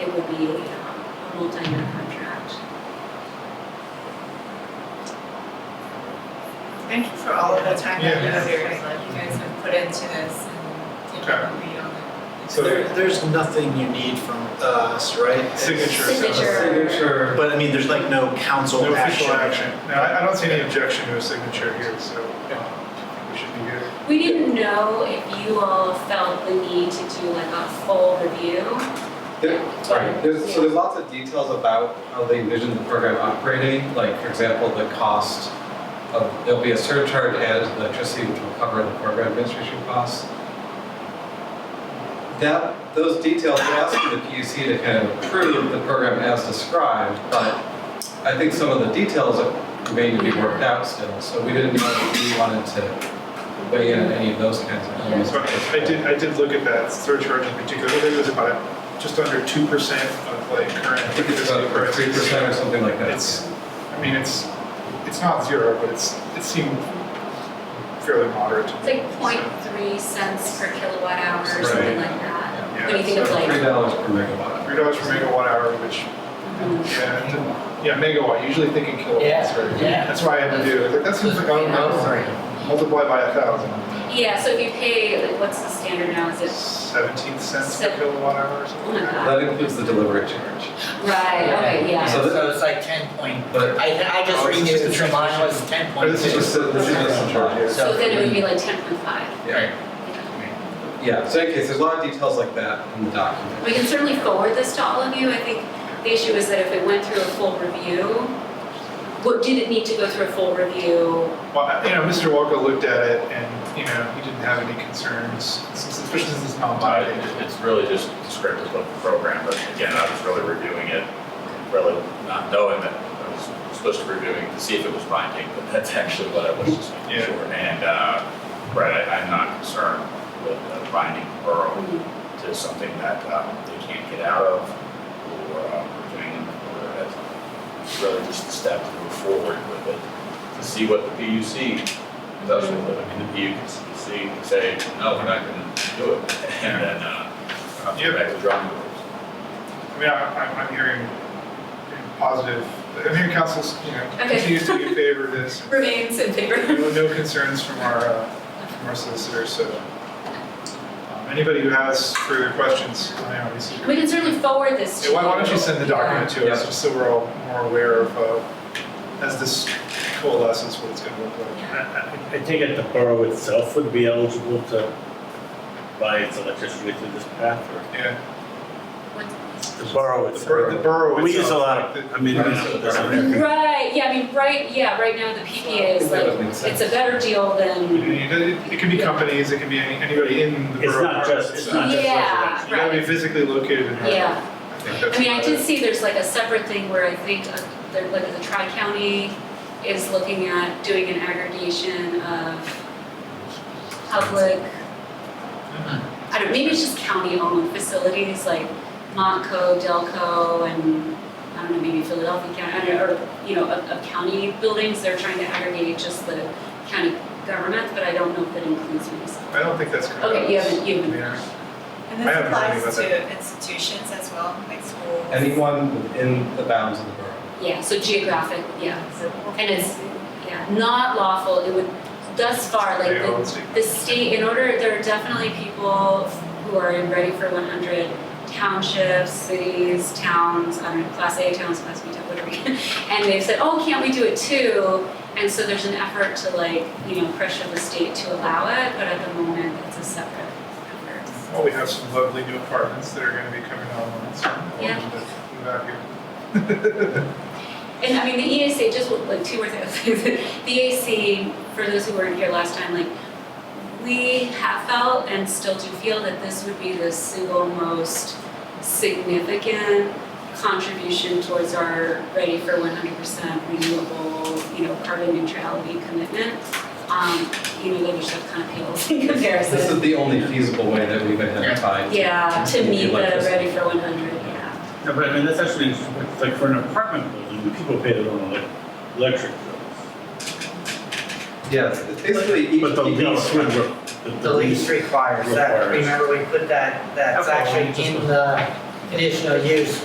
be um, a multi-year contract. Thank you for all of the time that Yeah. you here, like you guys have put into this and you know, we on it. It's So- There, very- there's nothing you need from us, right? Signature. Signature. Signature. But I mean, there's like no council No action. official action. No, I, I don't see any objection to a signature here, so um, we should be good. We didn't know if you all felt the need to do like a full review. There- Right, there's, so there's lots of details about how they envision the program operating, like, for example, the cost of, there'll be a surcharge added to electricity, which will cover the program administration costs. That, those details, we're asking the PUC to kind of approve the program as described, but I think some of the details may need to be worked out still, so we didn't know if we wanted to weigh in on any of those kinds of elements. So I I did, I did look at that surcharge in particular, I think it was about just under two percent of like current. I think it's about three percent or something like that. It's, I mean, it's, it's not zero, but it's, it seemed fairly moderate. to It's me. like 0.3 cents per kilowatt hour or something Right. like that. Yeah, What do you think of so like? Three dollars per megawatt. Three dollars per megawatt hour, which, Mhm. yeah, yeah, megawatt, usually thinking kilowatts, right? yeah. That's why I had to do, it. like, that seems like, oh, no, multiply by a thousand. Yeah, so if you pay, like what's the standard now, is it, Seventeen cents per Seven- kilowatt hour or something? Oh my God. That includes the delivery charge. right, okay, yeah. So So th- it's like ten point, But- I, I just Oh, this is renewed, just a so mine was ten Or point two. this is just, a- this is just a charge. yeah. So then it would be like 10.5. Yeah. Yeah, so in any case, there's a lot of details like that in the document. We can certainly forward this to all of you. I think the issue is that if it went through a full review, what, did it need to go through a full review? Well, I- you know, Mr. Walker looked at it and, you know, he didn't have any concerns, especially since it's not Uh, binding. it- It's really just descriptive of the program, but again, I was really reviewing it, really not knowing that I was supposed to be reviewing to see if it was binding, but that's actually what I was just making Yeah. sure. And, uh, right, I- I'm not concerned with uh, binding Borough to something that um, they can't get out of or uh, doing in order as it's really just a step to move forward with it, to see what the PUC does with it. I mean, the PUC can say, no, we're not gonna do it, and then, uh, we'll have to go back to the drawing boards. I mean, I- I'm, I'm hearing hearing positive, I'm hearing council's, you know, Okay. continues to be in favor of this. Remains in favor. No no concerns from our, uh, from our solicitor, so. um, Anybody who has further questions, I know, this is- We can certainly forward this Yeah, to. Why, why don't you send the document to us, Yeah. just so we're all more aware of, uh, as this coalesces, what it's gonna look like. I, I- I take it the borough itself would be eligible to buy its electricity through this path, or Yeah, the borough the bor- the borough itself. We use a lot of, like the- I mean, you know, there's a- Right, yeah, I mean, right, yeah, right now the PPA is That like, would make sense. it's a better deal You than, know, It it can be companies, it can be any- anybody in the it's borough. not just, it's not just Yeah. residential. You gotta be physically located in Harvard. yeah. I think that's. I mean, I did see there's like a separate thing where I think, uh, there- like the tri-county is looking at doing an aggregation of public, I don't, maybe it's just county-owned facilities like Montco, Delco, and I don't know, maybe Philadelphia County, I don't know, or, you know, of, of county buildings, they're trying to aggregate just the county government, but I don't know if that includes municipal. I don't think that's correct. Okay, you haven't- you haven't- Yeah. And I this haven't heard any applies about to institutions as well, like schools. Anyone within the bounds of the borough. Yeah, so geographic, yeah, So- and it's, yeah, not lawful, it would, thus far, like Yeah, the let's see. the state, in order, there are definitely people who are in Ready for one hundred townships, cities, towns, I don't know, class A towns, class B towns, whatever. And they've said, oh, can't we do it too? And so there's an effort to like, you know, pressure the state to allow it, but at the moment, it's a separate effort. Well, we have some lovely new apartments that are gonna be coming online soon. Yeah. Move out here. And I mean, the EAC, just like two more things, the EAC, for those who weren't here last time, like, we have felt and still do feel that this would be the single most significant contribution towards our ready for one hundred percent renewable, you know, carbon neutrality commitment. Um, you know, the other stuff kind of pales in This is comparison. the only feasible way that we've identified. Yeah, to meet the electricity. ready for one hundred, yeah. No, but I mean, that's actually, interesting. It's like for an apartment building, the people pay their own elec- electric bills. Yes, it's basically each. But the each- lease would, re- the- The lease requires that, Requires. remember we put that, that's Okay. actually in the conditional use